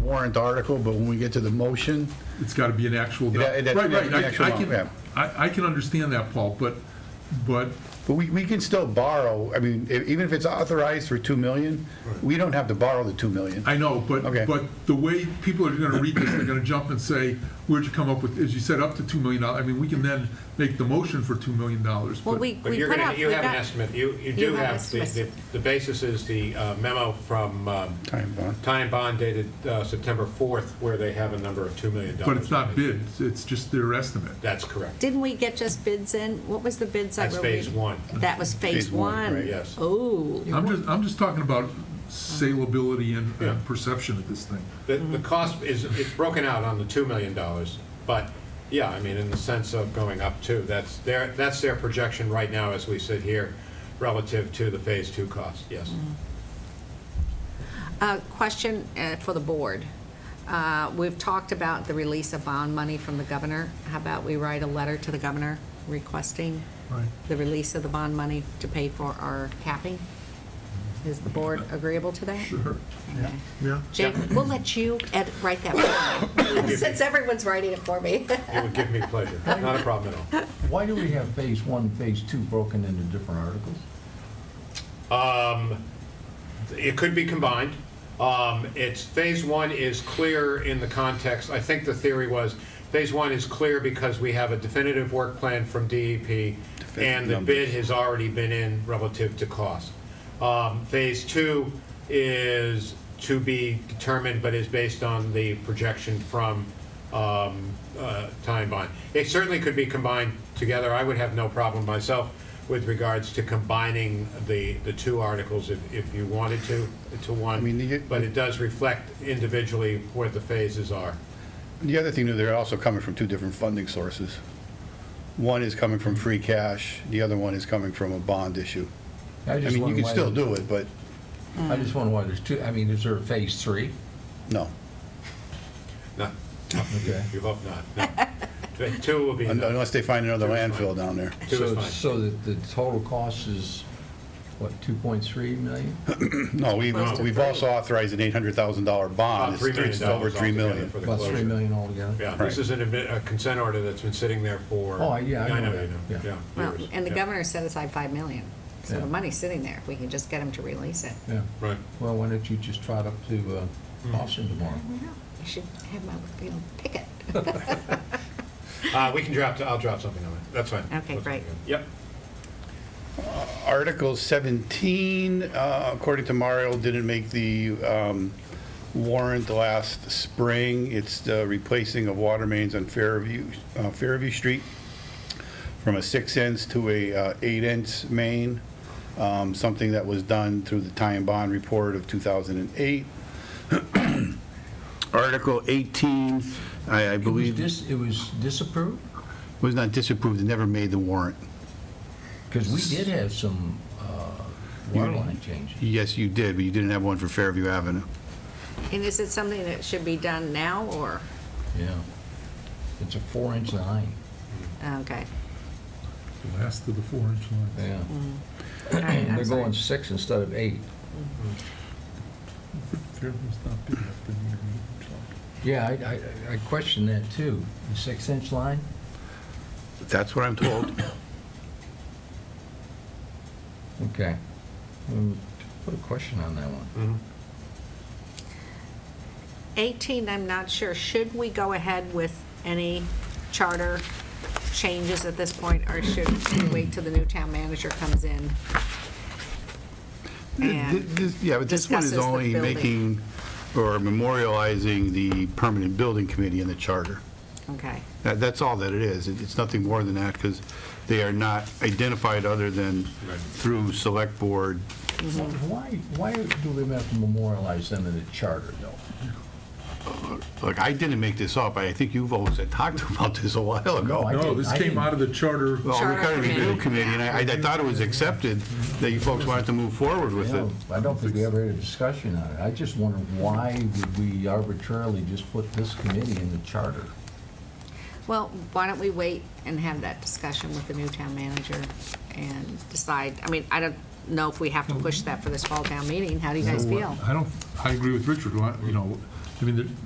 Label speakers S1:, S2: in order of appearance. S1: warrant article, but when we get to the motion,
S2: It's got to be an actual.
S1: Yeah, it-
S2: Right,
S1: yeah, an
S2: right, I-
S1: actual
S2: I
S1: amount, yeah.
S2: can, I, I can understand that, Paul, but, but,
S1: but we, we can still borrow, I mean, e- even if it's authorized for 2 million, we don't have to borrow the 2 million.
S2: I know, but,
S1: Okay.
S2: but the way people are going to read this, they're going to jump and say, where'd you come up with, as you said, up to $2 million? I mean, we can then make the motion for $2 million,
S3: Well,
S2: but-
S3: we,
S4: But
S3: we
S4: you're
S3: put
S4: gonna,
S3: out,
S4: you
S3: we
S4: have an
S3: got-
S4: estimate, you, you do
S3: have
S4: have, the, the-
S3: estimates.
S4: the basis is the uh, memo from um,
S1: Time bond.
S4: Time Bond dated uh, September 4th, where they have a number of $2 million.
S2: But it's not bid, it's- it's just their estimate.
S4: That's correct.
S3: didn't we get just bids in? What was the bids that
S4: That's
S3: were?
S4: phase
S3: reading?
S4: one.
S3: That was phase
S1: Phase one,
S3: one?
S1: right.
S4: Yes.
S3: Oh,
S2: I'm just, I'm just talking about saleability and
S4: Yeah.
S2: and perception of this thing.
S4: The,
S3: Mm-hmm.
S4: the cost is, it's broken out on the $2 million, but, yeah, I mean, in the sense of going up too, that's their, that's their projection right now as we sit here relative to the phase two cost, yes.
S3: Mm-hmm. a question uh, for the board. Uh, We've talked about the release of bond money from the governor. How about we write a letter to the governor requesting
S2: Right.
S3: the release of the bond money to pay for our capping? Is the board agreeable to that?
S2: Sure.
S3: Okay.
S2: Yeah.
S3: Jake, we'll let you edit, write that one, since everyone's writing it for me.
S4: It would give me pleasure, not a problem at all.
S5: Why do we have phase one, phase two broken into different articles?
S4: It could be combined. Um, It's, phase one is clear in the context, I think the theory was, phase one is clear because we have a definitive work plan from DEP, and the bid has already been in relative to cost. Um, Phase two is to be determined, but is based on the projection from um, uh, time bond. It certainly could be combined together. I would have no problem myself with regards to combining the, the two articles if, if you wanted to, to one.
S1: I mean, the-
S4: But it does reflect individually what the phases are.
S1: The other thing, they're also coming from two different funding sources. One is coming from free cash, the other one is coming from a bond issue.
S5: I
S1: I
S5: just
S1: mean, you
S5: wonder
S1: can
S5: why
S1: still
S5: there-
S1: do it, but
S5: I just wonder why there's two, I mean, is there a phase three?
S1: no.
S4: No,
S5: Okay.
S4: you hope not, no. The Two will be,
S1: Un-
S4: enough.
S1: Unless they find another landfill down there.
S4: two is
S5: So,
S4: fine.
S5: so that the total cost is, what, 2.3 million?
S1: No, we-
S3: Close to
S1: we've
S3: three.
S1: also authorized an $800,000 bond.
S4: About
S1: It's
S4: $3 Uh, million
S1: it's over $3
S4: altogether
S1: million.
S4: for the
S5: About 3
S4: closure.
S5: million altogether?
S4: Yeah, this
S1: Right.
S4: is an admi- a consent order that's been sitting there for.
S5: Oh, yeah, I know that,
S4: you
S5: yeah.
S3: Well,
S4: years,
S3: and the
S4: yeah.
S3: governor set aside 5 million, so
S5: Yeah.
S3: the money's sitting there, if we can just get him to release it.
S5: Yeah.
S4: Right.
S5: Well, why don't you just trot up to uh,
S4: Hmm.
S5: Boston tomorrow?
S3: No, I should have my, you know, pick it.
S4: Uh, we can drop, I'll drop something on it, that's fine.
S3: Okay,
S4: That's
S3: great.
S4: good. Yep.
S1: Article 17, uh, according to Mario, didn't make the um, warrant last spring. It's the replacing of water mains on Fairview, uh, Fairview Street from a six inch to a uh, eight inch main, um, something that was done through the tie and bond report of 2008. Article 18, I I
S5: It was
S1: believe,
S5: dis, it was disapproved?
S1: was not disapproved, it never made the warrant.
S5: Because we did have some uh, water line changes.
S1: Yes, you did, but you didn't have one for Fairview Avenue.
S3: And is it something that should be done now, or,
S5: Yeah. It's a four-inch line.
S3: okay.
S2: The last of the four-inch lines.
S5: Yeah.
S3: All right, I'm
S5: They're
S3: sorry.
S5: going six instead of eight.
S2: Fairview's not big enough to need a meeting.
S5: Yeah, I, I, I question that too. The six-inch line?
S1: That's what I'm told.
S5: Okay. Mm, Put a question on that one.
S3: 18, I'm not sure. Should we go ahead with any charter changes at this point, or should we wait till the new town manager comes in?
S1: Th-
S3: And,
S1: this- Yeah, but this one
S3: discusses
S1: is
S3: the
S1: only
S3: building.
S1: making or memorializing the permanent building committee in the charter.
S3: okay,
S1: That- That's all that it is. It- It's nothing more than that because they are not identified other than
S4: Right.
S1: through select board.
S2: Mm-hmm.
S5: Why, why do we have to memorialize them in the charter though?
S1: Look, I didn't make this up. I think you've always had talked about this a while ago.
S5: I
S2: No,
S5: didn't-
S2: this
S5: I
S2: came
S5: didn't-
S2: out of the charter.
S1: Well,
S3: Charter
S1: we got a review
S3: committee.
S1: committee and I I thought it was accepted that you folks wanted to move forward with
S5: You
S1: it.
S5: know, I don't think we ever had a discussion on it. I just wonder why did we arbitrarily just put this committee in the charter?
S3: well, why don't we wait and have that discussion with the new town manager and decide? I mean, I don't know if we have to push that for this fall town meeting. How do you guys
S2: So, uh,
S3: feel?
S2: I don't, I agree with Richard, Why- you know, I mean, there-